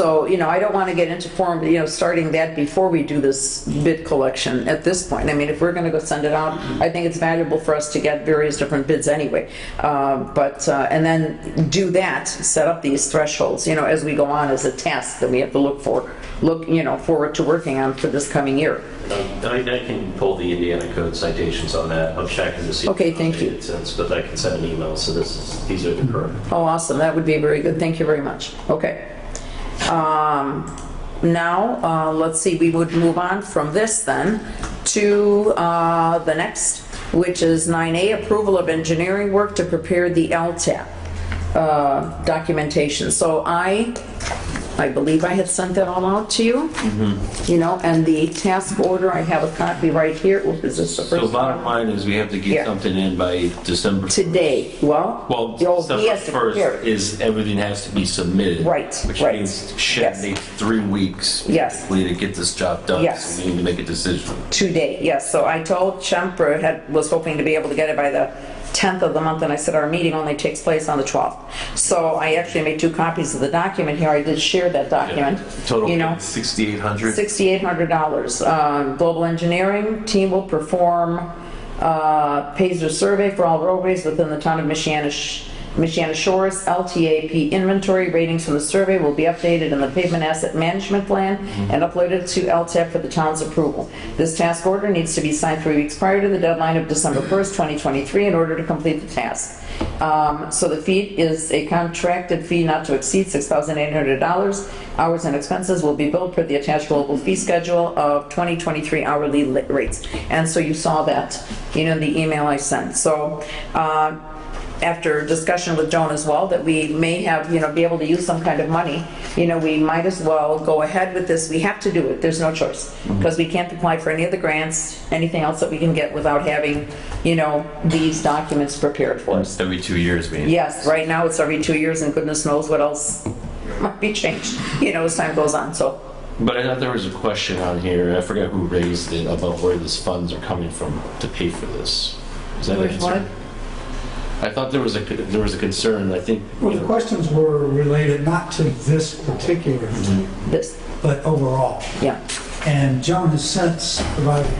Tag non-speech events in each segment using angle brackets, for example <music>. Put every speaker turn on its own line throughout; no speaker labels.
So, you know, I don't want to get into form, you know, starting that before we do this bid collection at this point. I mean, if we're going to go send it out, I think it's valuable for us to get various different bids anyway. Uh, But, uh, and then do that, set up these thresholds, you know, as we go on as a task that we have to look for, look, you know, forward to working on for this coming year.
I I can pull the Indiana Code citations on that. I'm checking to see. if
Okay,
it's
thank you.
updated Since, but I can send an email, so this is, these are
Mm-hmm.
the current.
Oh, awesome, that would be very good, thank you very much. Okay. Um, Now, uh, let's see, we would move on from this then to uh, the next, which is 9A, approval of engineering work to prepare the LTAP uh, documentation. So I, I believe I had sent that all out to you.
Mm-hmm.
You know, and the task order, I have a copy right here, Oop, is this the
So
first?
bottom line is we have to
Yeah.
get something in by December.
Today, well.
Well,
oh, he
December
has to prepare it.
first is everything has to be submitted.
Right,
Which
right.
means
Yes.
shit needs three weeks.
Yes.
We need to get this job done.
Yes.
So we need to make a decision.
today, yes. So I told Chempra, had, was hoping to be able to get it by the 10th of the month, and I said, our meeting only takes place on the 12th. So I actually made two copies of the document here. I did share that document. You know,
Total sixty-eight hundred.
$6,800. Um, Global Engineering team will perform uh, Pazer survey for all roadways within the town of Michiana Sh- Michiana Shores. LTAP inventory ratings from the survey will be updated in the pavement asset management plan
Mm-hmm.
and uploaded to LTAP for the town's approval. This task order needs to be signed three weeks prior to the deadline of
<clears throat>
December 1st, 2023, in order to complete the task. Um, So the fee is a contracted fee not to exceed $6,800. Hours and expenses will be billed per the attached global fee schedule of 2023 hourly li- rates. And so you saw that, you know, in the email I sent. So uh, after discussion with Joan as well, that we may have, you know, be able to use some kind of money, you know, we might as well go ahead with this. We have to do it. There's no choice. Because we can't apply for any of the grants, anything else that we can get without having, you know, these documents prepared for us.
Every two years, we.
Yes, right now it's every two years and goodness knows what else <laughs> might be changed, you know, as time goes on, so.
But I thought there was a question on here, I forgot who raised it, about where these funds are coming from to pay for this. Is that a
Which one?
concern? I thought there was a, there was a concern, I think.
Well, the questions were related not to this particular thing,
Mm-hmm. This,
but overall.
yeah,
And Joan has since provided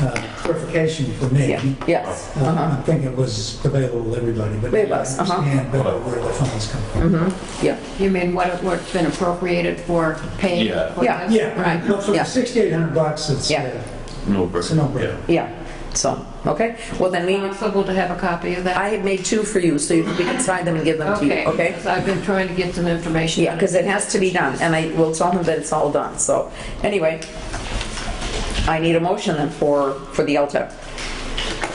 uh, clarification for me.
yeah, yes,
Uh,
uh-huh,
I think it was available to everybody, but
It was,
I
uh-huh.
understand better where the funds come from.
yeah,
You mean what, what's been appropriated for paying
Yeah.
for
Yeah.
this?
Yeah, right.
Right.
No, for
Mm-hmm. Yeah.
6,800 bucks, it's,
Yeah.
uh,
No,
it's a no-brainer.
Yeah.
yeah, so, okay. Well, then we,
Possible to have a copy of that?
I had made two for you, so you- we can sign them and give them to you, okay?
because I've been trying to get some information.
Yeah, because it has to be done, and I will tell him that it's all done, so, anyway. I need a motion then for, for the E LTIP.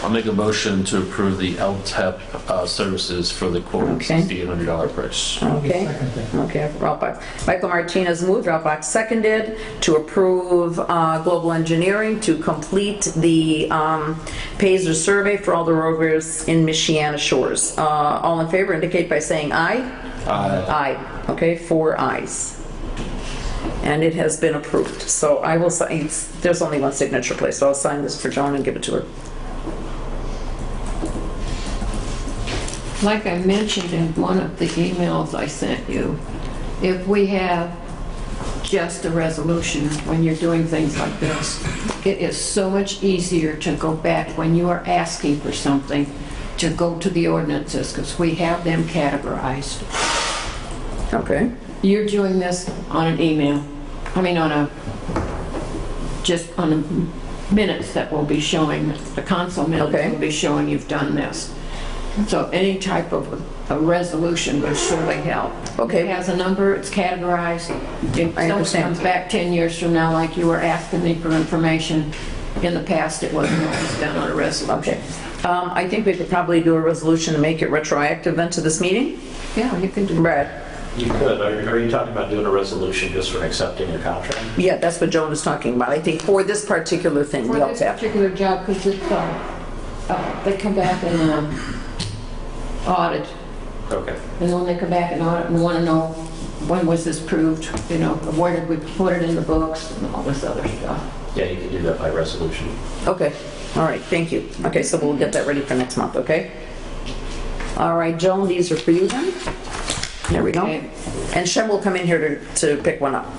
I'll make a motion to approve the LTEP uh, services for the quote
Okay.
$6,800 price.
Okay,
Second thing.
okay, Ralbach. Michael Martinez moved, Ralbach seconded, to approve uh, Global Engineering to complete the um, Pazer survey for all the roadways in Michiana Shores. Uh, All in favor indicate by saying aye. Aye. Aye, okay, four ayes. And it has been approved, so I will sign, it's- there's only one signature place, so I'll sign this for Joan and give it to her.
Like I mentioned in one of the emails I sent you, if we have just a resolution when you're doing things like this, it is so much easier to go back when you are asking for something, to go to the ordinances, because we have them categorized.
Okay,
You're doing this on an email, I mean, on a, just on the minutes that will be showing, the council
Okay.
minutes will be showing you've done this. So any type of a resolution would surely help.
Okay.
It has a number, it's categorized. If
I
someone
understand.
comes back 10 years from now, like you were asking me for information, in the past, it wasn't always done on a resolution.
okay. Um, I think we could probably do a resolution to make it retroactive then to this meeting?
Yeah, you can do that.
Brad?
You could, are are you talking about doing a resolution just for accepting a contract?
Yeah, that's what Joan was talking about, I think, for this particular thing, the
For this
LTAP.
particular job, because it's, uh, uh, they come back and um, audit,
Okay.
and when they come back and audit, and want to know, when was this proved, you know, where did we put it in the books, and all this other stuff.
Yeah, you can do that by resolution.
Okay, all right, thank you. Okay, so we'll get that ready for next month, okay? All right, Joan, these are for you then? There we go.
Okay.
And Shem will come in here to, to pick one up.